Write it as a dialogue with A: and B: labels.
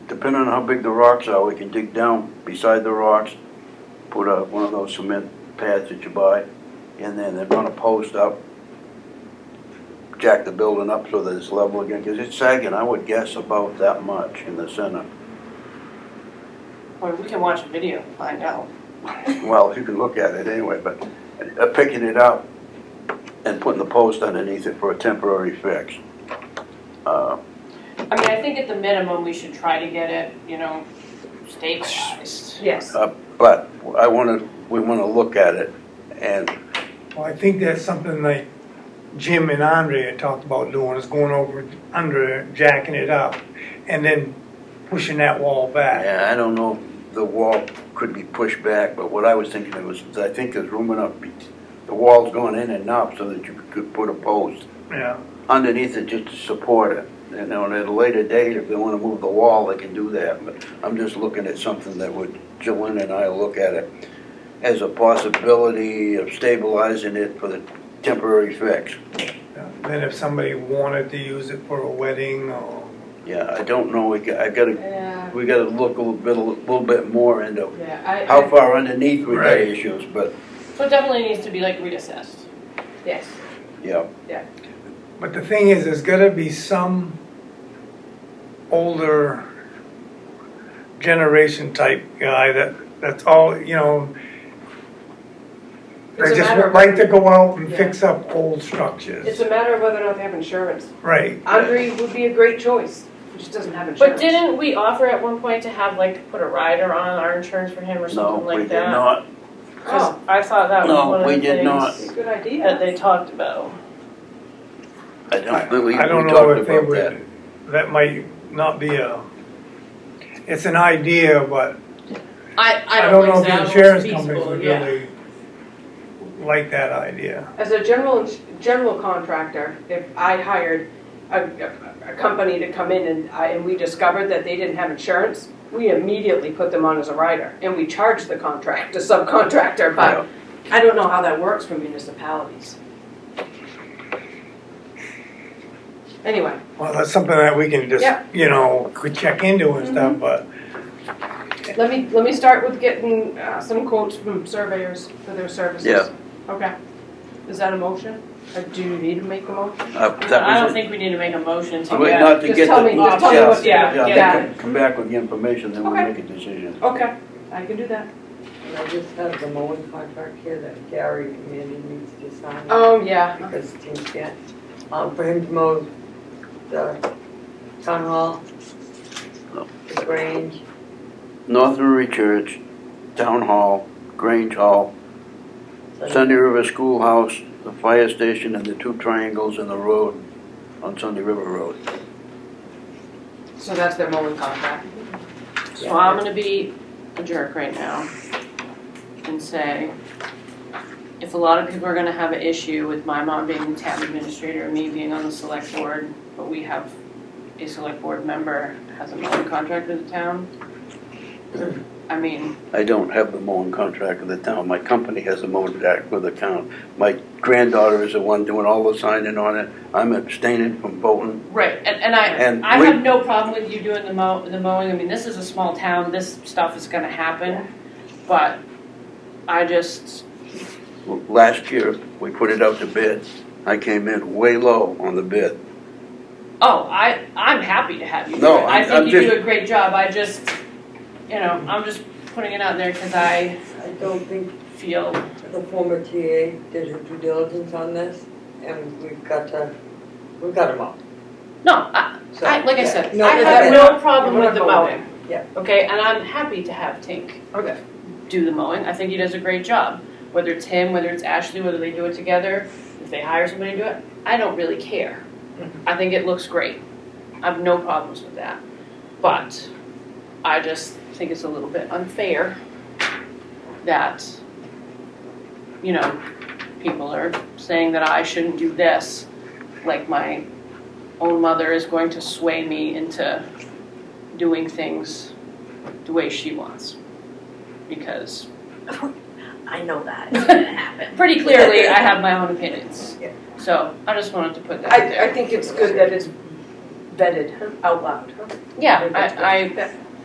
A: depending on how big the rocks are, we can dig down beside the rocks, put a, one of those cement pads that you buy, and then, then run a post up, jack the building up so that it's level again, because it's sagging, I would guess about that much in the center.
B: Well, we can watch a video and find out.
A: Well, you can look at it anyway, but uh, picking it up and putting the post underneath it for a temporary fix. Uh,
B: I mean, I think at the minimum, we should try to get it, you know, stabilized.
A: Uh,
C: Yes.
A: But I want to, we want to look at it and
D: Well, I think that's something like Jim and Andre had talked about doing, is going over, under, it, jacking it up, and then pushing that wall back.
A: Yeah, I don't know if the wall could be pushed back, but what I was thinking of was, I think there's room enough, be- the wall's going in and up so that you could put a post
D: Yeah,
A: underneath it just to support it. You know, and at a later date, if they wanna move the wall, they can do that, but I'm just looking at something that would, Joanne and I look at it as a possibility of stabilizing it for the temporary fix.
D: yeah. Then if somebody wanted to use it for a wedding or,
A: Yeah, I don't know, we, got- I gotta,
B: Yeah,
A: we gotta look a little bit, a little bit more into
B: yeah, I,
A: how
B: I,
A: far underneath we got
D: Right.
A: issues, but
B: so it definitely needs to be like reassessed.
C: Yes.
A: Yeah,
D: but the thing is, there's gotta be some older generation type guy that, that's all, you know,
C: It's
D: they
C: a
D: just
C: matter
D: would
C: of-
D: like to go out and fix up old
C: It's
D: structures.
C: a matter of whether or not they have insurance.
D: Right,
C: Andre would be a great choice. He just doesn't have
B: But
C: insurance.
B: didn't we offer at one point to have, like, put a rider on our insurance for him or
A: no,
B: something
A: we
B: like
A: did
B: that?
A: not.
B: Because I thought that was
A: No,
B: one of
A: we
B: the
A: did not.
B: things
C: It's oh, a good
B: that
C: idea.
B: they talked about.
A: I
D: I
A: don't believe we
D: I don't know
A: talked
D: if they
A: about that.
D: would, that might not be a, it's an idea, but
B: I,
D: I
B: I
D: don't
B: don't
D: know
B: think
D: if the
B: that was
D: insurance companies
B: feasible,
D: would
B: yeah.
D: really like that idea.
C: As a general, general contractor, if I hired a, a company to come in and I, and we discovered that they didn't have insurance, we immediately put them on as a rider and we charged the contract, the subcontractor, but I don't know how that works for municipalities. Anyway,
D: Well, that's something that we can just,
C: Yeah.
D: you know, could check into and stuff,
B: Mm-hmm.
D: but
C: let me, let me start with getting uh, some quotes from surveyors for their services.
A: Yeah.
C: Okay. Is that a motion? Or do you need to make a motion?
A: Uh,
B: I
A: That
B: don't
A: was it.
B: think we need to make a motion
A: I
B: to
A: mean,
B: get.
A: not to
C: just
A: get
C: tell
A: the-
C: me- just tell me what-
B: yeah,
A: I
C: yeah.
A: think Come back with the information, then we'll
C: Okay.
A: make a decision.
C: Okay, I can do that.
E: And I just have the mowing contract here that Gary Committee needs to sign.
B: Um,
C: Oh, yeah.
E: Because Tim can't, um, for him to mow the town hall,
A: No.
E: the Grange,
A: North Murray Church, Town Hall, Grange Hall,
E: so
A: Sunday River Schoolhouse, the fire station, and the two triangles in the road on Sunday River Road.
C: So that's their mowing contract.
B: So I'm gonna be a jerk right now and say, if a lot of people are gonna have an issue with my mom being the town administrator and me being on the select board, but we have a select board member has a mowing contract with the town. I mean,
A: I don't have the mowing contract with the town, my company has the mowing contract with the town. My granddaughter is the one doing all the signing on it, I'm abstaining from voting.
B: right, and, and
A: And
B: I, I
A: we-
B: have no problem with you doing the mow, the mowing, I mean, this is a small town, this stuff is gonna happen, but I just,
A: Last year, we put it out to bid, I came in way low on the bid.
B: Oh, I, I'm happy to have you. do
A: No,
B: it. I
A: I'm-
B: think
A: I'm
B: you
A: just-
B: do a great job. I just, you know, I'm just putting it out there because I
E: I don't think
B: feel.
E: the former TA did her due diligence on this, and we've got to, we've got to mow,
B: No, I,
E: so.
B: I like I
E: yeah.
B: said,
E: No,
B: I
E: it's
B: have
E: okay.
B: no problem
E: You wanna
B: with the
E: vote on
B: mowing.
E: Yeah.
B: Okay, and I'm happy to have Tink
C: Okay.
B: do the mowing. I think he does a great job. Whether it's him, whether it's Ashley, whether they do it together, if they hire somebody to do it, I don't really care. I think it looks great. I have no problems with that. But I just think it's a little bit unfair that, you know, people are saying that I shouldn't do this, like my own mother is going to sway me into doing things the way she wants. Because
F: I know that. It's gonna happen.
B: pretty clearly, I have my own opinions.
E: Yeah.
B: So I just wanted to put that out
C: I, I
B: there.
C: think it's good that it's vetted out loud.
B: Yeah, I, I,